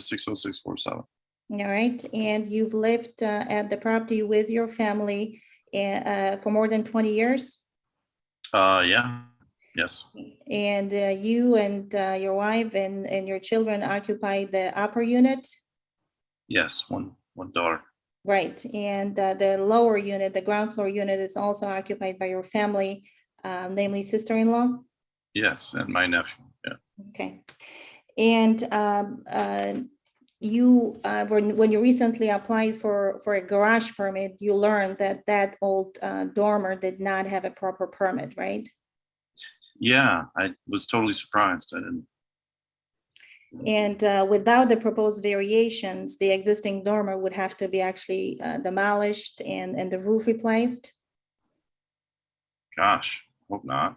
six oh six four seven. All right, and you've lived uh, at the property with your family uh, for more than 20 years? Uh, yeah, yes, And uh, you and uh, your wife and, and your children occupy the upper unit? yes, one, one daughter. Right, and uh, the lower unit, the ground floor unit is also occupied by your family, uh, namely sister-in-law? Yes, and my nephew, yeah. Okay. And um, uh, you, uh, when when you recently applied for, for a garage permit, you learned that that old uh, dormer did not have a proper permit, right? Yeah, I was totally surprised. I didn't, And uh, without the proposed variations, the existing dormer would have to be actually uh, demolished and, and the roof replaced. gosh, hope not.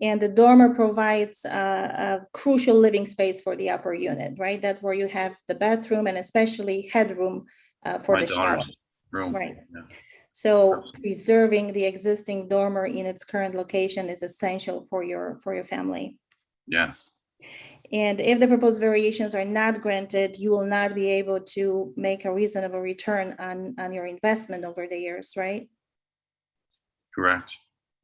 And the dormer provides uh, a crucial living space for the upper unit, right? That's where you have the bathroom and especially headroom uh, for My the shower. daughter's room. Right. yeah. So preserving the existing dormer in its current location is essential for your, for your family. Yes, And if the proposed variations are not granted, you will not be able to make a reasonable return on, on your investment over the years, right? correct.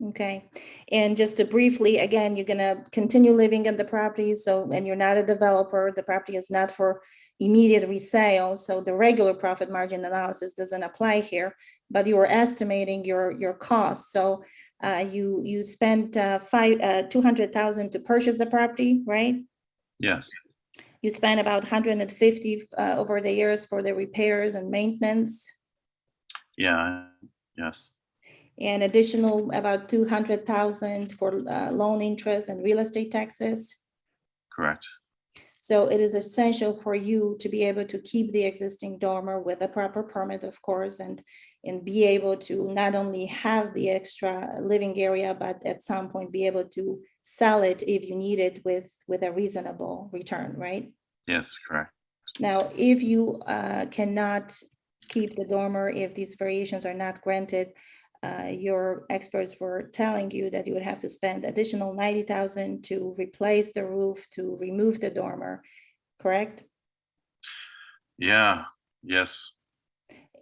Okay, and just to briefly, again, you're gonna continue living in the property, so, and you're not a developer, the property is not for immediate resale, so the regular profit margin analysis doesn't apply here, but you are estimating your, your costs, so uh, you, you spent uh, five, uh, two hundred thousand to purchase the property, right? Yes, You spent about hundred and fifty uh, over the years for the repairs and maintenance, yeah, I- yes, and additional about two hundred thousand for uh, loan interest and real estate taxes. correct. So it is essential for you to be able to keep the existing dormer with a proper permit, of course, and, and be able to not only have the extra living area, but at some point be able to sell it if you need it with, with a reasonable return, right? Yes, correct. Now, if you uh, cannot keep the dormer, if these variations are not granted, uh, your experts were telling you that you would have to spend additional ninety thousand to replace the roof, to remove the dormer, correct? Yeah, yes,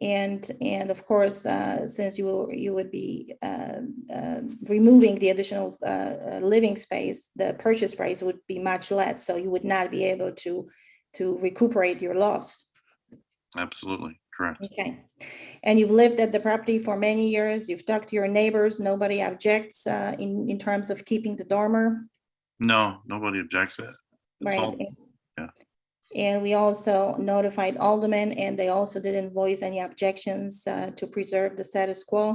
And, and of course, uh, since you, will- you would be um, um, removing the additional uh, uh, living space, the purchase price would be much less, so you would not be able to, to recuperate your loss. absolutely, correct. Okay, and you've lived at the property for many years, you've talked to your neighbors, nobody objects uh, in, in terms of keeping the dormer, No, nobody objects to it. It's right? all- yeah. And- And we also notified aldermen, and they also didn't voice any objections uh, to preserve the status quo,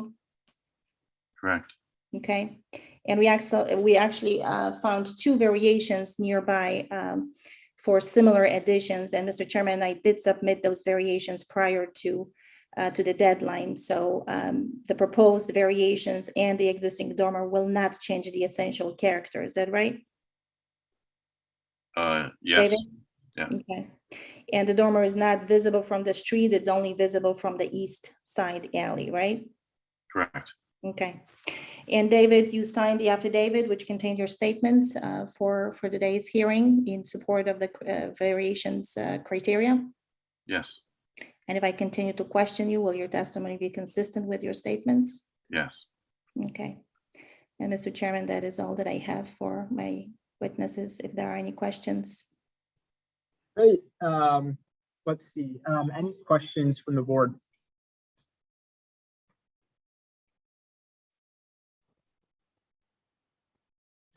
Correct. okay? And we actually, we actually uh, found two variations nearby um, for similar additions, and Mr. Chairman, I did submit those variations prior to uh, to the deadline. So um, the proposed variations and the existing dormer will not change the essential character. Is that right? Uh, yes, David? yeah. Okay. And the dormer is not visible from the street. It's only visible from the east side alley, right? correct. Okay. And David, you signed the affidavit which contained your statements uh, for for today's hearing in support of the uh, variations uh, criteria. Yes, And if I continue to question you, will your testimony be consistent with your statements? yes. Okay. And Mr. Chairman, that is all that I have for my witnesses. If there are any questions. Great. Um, let's see. Um, any questions from the board?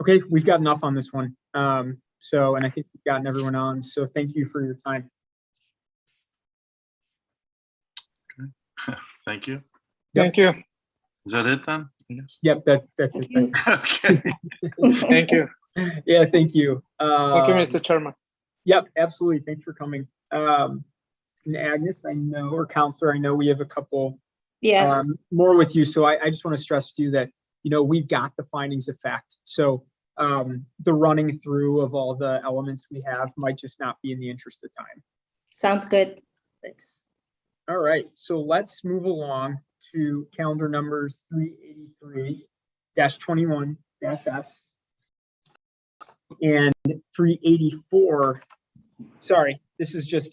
Okay, we've got enough on this one. Um, so, and I think we've gotten everyone on. So thank you for your time. Thank you. Yep. Thank you, Is that it then? Yes. Yep, that, that's it. Thank you. Okay. thank you, Yeah, thank you. thank you, Um, Mr. Chairman. Yep, absolutely. Thanks for coming. Um, and Agnes, I know, or Counselor, I know we have a couple Yes, um, more with you. So I, I just want to stress to you that, you know, we've got the findings of fact. So um, the running through of all the elements we have might just not be in the interest of time. sounds good. Thanks. All right, so let's move along to calendar numbers three eighty-three twenty-one F and three eighty-four. Sorry, This is just